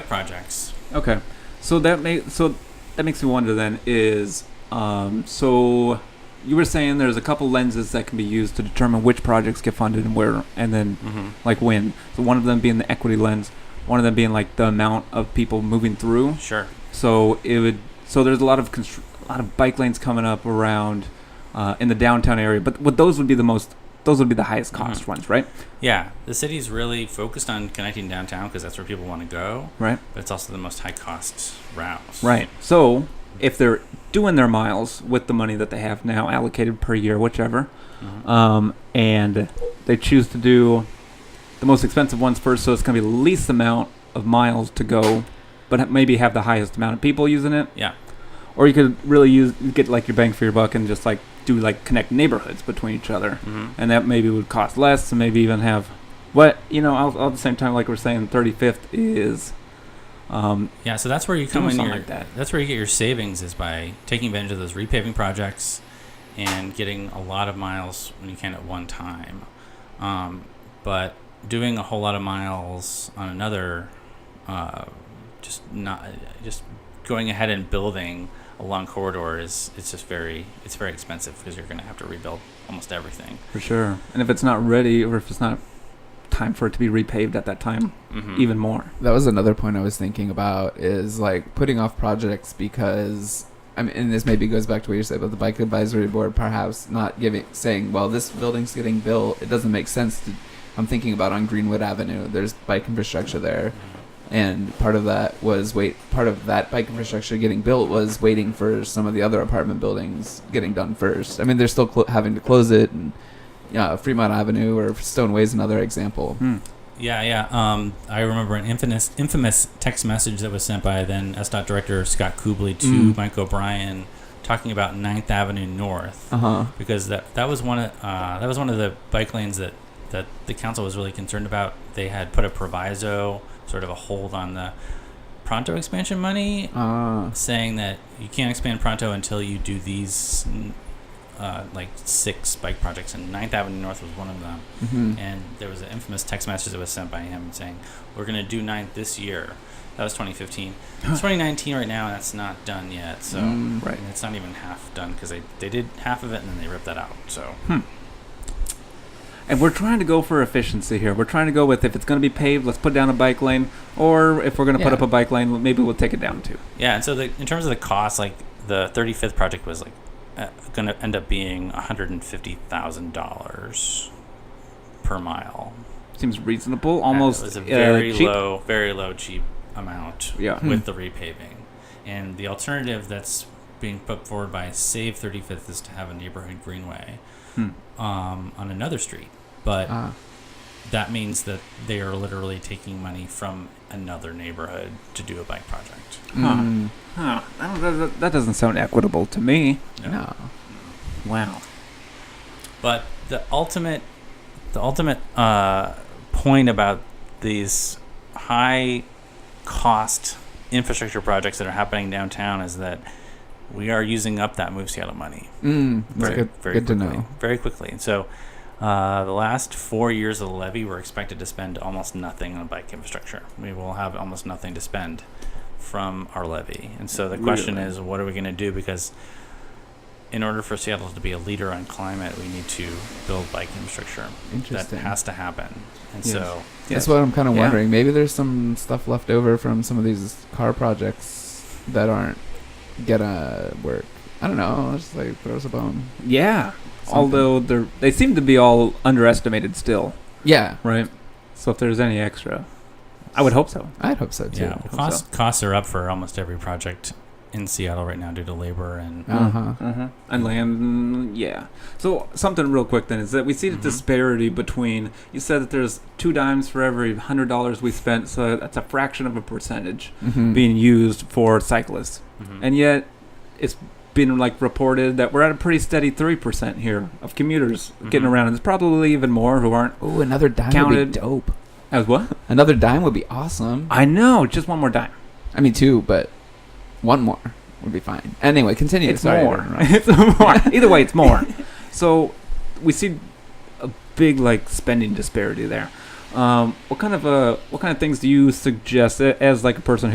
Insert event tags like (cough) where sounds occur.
projects. Okay, so that may so that makes me wonder then is um, so you were saying there's a couple lenses that can be used to determine which projects get funded and where and then Mm-hmm. like when. So one of them being the equity lens, one of them being like the amount of people moving through. Sure. So it would so there's a lot of constr- a lot of bike lanes coming up around uh, in the downtown area, but what those would be the most those would be the highest cost ones, right? Yeah, the city's really focused on connecting downtown because that's where people want to go. Right. But it's also the most high cost route. Right. So if they're doing their miles with the money that they have now allocated per year, whichever, Mhm. um, and they choose to do the most expensive ones first, so it's going to be the least amount of miles to go, but ha- maybe have the highest amount of people using it. Yeah. Or you could really use get like your bang for your buck and just like do like connect neighborhoods between each other, Mhm. and that maybe would cost less, and maybe even have what you know. All, all at the same time, like we're saying, thirty fifth is um, Yeah, so that's where you come doing in something your, like that. that's where you get your savings is by taking advantage of those repaving projects and getting a lot of miles when you can at one time. Um, but doing a whole lot of miles on another, uh, just not just going ahead and building a long corridor is it's just very it's very expensive because you're going to have to rebuild almost everything. For sure. And if it's not ready or if it's not time for it to be repaved at that time, Mm-hmm. even more. That was another point I was thinking about is like putting off projects because I mean, and this maybe goes back to what you said about the bike advisory board, perhaps not giving saying, well, this building's getting built, it doesn't make sense to. I'm thinking about on Greenwood Avenue. There's bike infrastructure there, Mm-hmm. and part of that was wait. Part of that bike infrastructure getting built was waiting for some of the other apartment buildings getting done first. I mean, they're still clo- having to close it, and yeah, Fremont Avenue or Stoneway is another example. Hmm. Yeah, yeah. Um, I remember an infamous, infamous text message that was sent by then SDOT director Scott Kubley to Mm. Mike O'Brien, talking about 9th Avenue North Uh huh. because that that was one of uh, that was one of the bike lanes that that the council was really concerned about. They had put a proviso, sort of a hold on the Pronto expansion money, Ah. saying that you can't expand Pronto until you do these. mm, Uh, like six bike projects, and 9th Avenue North was one of them mhm. and there was an infamous text message that was sent by him saying, "We're going to do ninth this year." That was (gasps) 2015. It's 2019 right now, and that's not done yet. So Mm. Right. and it's not even half done because they they did half of it and then they ripped that out. So And we're trying to go for efficiency here. We're trying to go with if it's going to be paved, let's put down a bike lane, or if we're going to put up Yeah. a bike lane, maybe we'll take it down too. yeah, and so the, in terms of the cost, like the 35th project was like uh, going to end up being 150 thousand dollars per mile. Seems reasonable, And almost it was a uh, very cheap. low, very low cheap amount. Yeah. with the repaving. And the alternative that's being put forward by Save 35th is to have a neighborhood greenway Hmm. um, on another street. But Ah. that means that they are literally taking money from another neighborhood to do a bike project. Huh. Mm. Huh. I don't- that- that doesn't sound equitable to me. No. Wow. But the ultimate, the ultimate uh, point about these high cost infrastructure projects that are happening downtown is that we are using up that Move Seattle money. Mm, that's good. good to quickly, know. Very quickly. And so, uh, the last four years of the levy, we're expected to spend almost nothing on bike infrastructure. We will have almost nothing to spend from our levy. And so the question Really? is, what are we going to do? Because in order for Seattle to be a leader on climate, we need to build bike infrastructure. That Interesting. has to happen. And Yes. so, That's what I'm kind of Yeah. wondering. Maybe there's some stuff left over from some of these car projects that aren't gonna work. I don't know. Just like throws a bone. Yeah. Something. Although they're they seem to be all underestimated still, Yeah, right? So if there's any extra, I would hope so. I'd hope so too. yeah, well, so. costs, costs are up for almost every project in Seattle right now due to labor and Uh huh. Uh-huh. And land, mm, yeah. So something real quick then is that we see the Mhm. disparity between. You said that there's two dimes for every hundred dollars we spent, so that's a fraction of a percentage Mm-hmm. being used for cyclists, Mhm. and yet it's been like reported that we're at a pretty steady three percent here of commuters getting Mhm. around, and there's probably even more who aren't Ooh, another dime Counted. would be dope. as what. Another dime would be awesome. I know, just one more dime. I mean, two, but one more would be fine. Anyway, continue. it's Sorry, I (laughs) more. didn't interrupt. it's more. (laughs) Either way, it's more. So we see a big like spending disparity there. Um, what kind of uh, what kind of things do you suggest a- as like a person